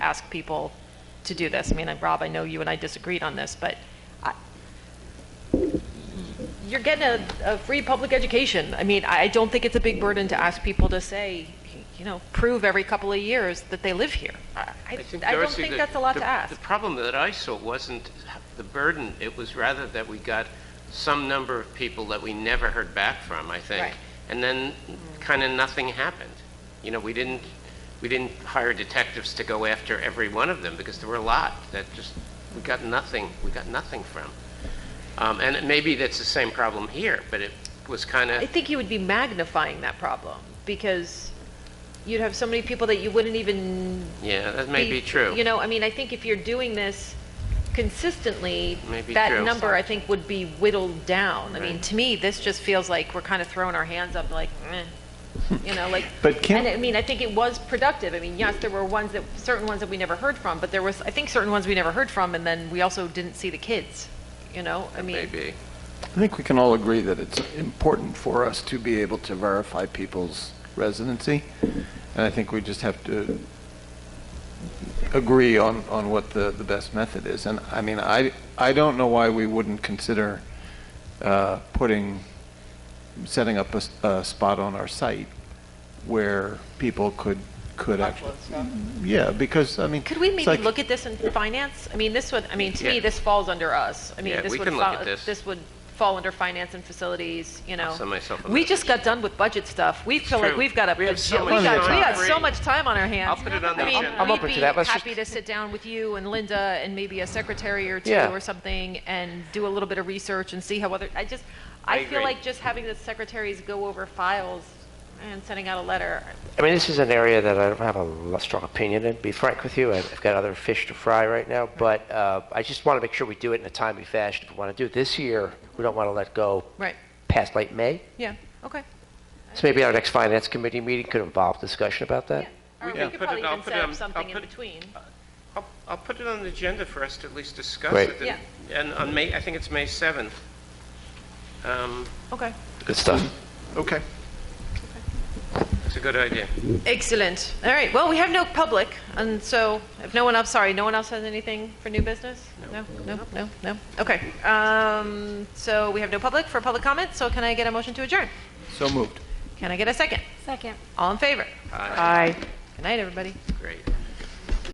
ask people to do this. I mean, and Rob, I know you and I disagreed on this, but I- you're getting a, a free public education. I mean, I I don't think it's a big burden to ask people to say, you know, prove every couple of years that they live here. I, I I don't Darcy, think the- that's a lot the- to ask. The problem that I saw wasn't the burden, it was rather that we got some number of people that we never heard back from, I Right. Mm-hmm. think. And then kind of nothing happened. You know, we didn't, we didn't hire detectives to go after every one of them because there were a lot that just, we got nothing, we got nothing from. Um, And it- maybe that's the same problem here, but it was kind I of, think you would be magnifying that problem because you'd have so many people that you wouldn't even. yeah, that may be You true. know, I mean, I think if you're doing this consistently, May be that true. number, I think, would be whittled down. I mean, Right. to me, this just feels like we're kind of throwing our hands up like, eh. You know, like, But can- and I mean, I think it was productive. I mean, yes, there were ones that, certain ones that we never heard from, but there was, I think, certain ones we never heard from, and then we also didn't see the kids, you know? I mean, Maybe. I think we can all agree that it's important for us to be able to verify people's residency, and I think we just have to agree on, on what the, the best method is. And, I mean, I, I don't know why we wouldn't consider uh, putting, setting up a, s- a spot on our site where people could, could actually. Yeah, because, I mean. Could we it's maybe like- look at this in finance? I mean, this would, I mean, to me, Yeah. this falls under us. I mean, Yeah, this we would can look fo- at this. This would fall under finance and facilities, you know. send myself a We message. just got done with budget stuff. We feel like true. we've got a, We have so we much got, time. we got so Great. much time on our hands. I'll put it on the I mean, agenda. I'm we'd open to be that. Let's just- happy to sit down with you and Linda and maybe a secretary or two Yeah. or something and do a little bit of research and see how other, I just, I I feel agree. like just having the secretaries go over files and sending out a letter, I mean, this is an area that I don't have a lo- strong opinion in, to be frank with you. I've I've got other fish to fry right now, but uh, I just want to make sure we do it in a timely fashion. If we want to do it this year, we don't want to let go right, past late May. yeah, okay. So maybe our next finance committee meeting could involve discussion about that. Yeah, or We we can could put it- probably I'll even put it set up on- something I'll in put it- between. I'll, I'll put it on the agenda for us to at least discuss Great. it. Yeah. And on May, I think it's May 7th. Um, Okay. Good stuff. Okay. It's a good idea. Excellent. All right, well, we have no public, and so if no one else, sorry, no one else has anything for new business? No, no, no, no. Okay. Um, so we have no public for public comment, so can I get a motion to adjourn? So moved. Can I get a second? Second. All in favor? Aye. Good night, everybody. Great.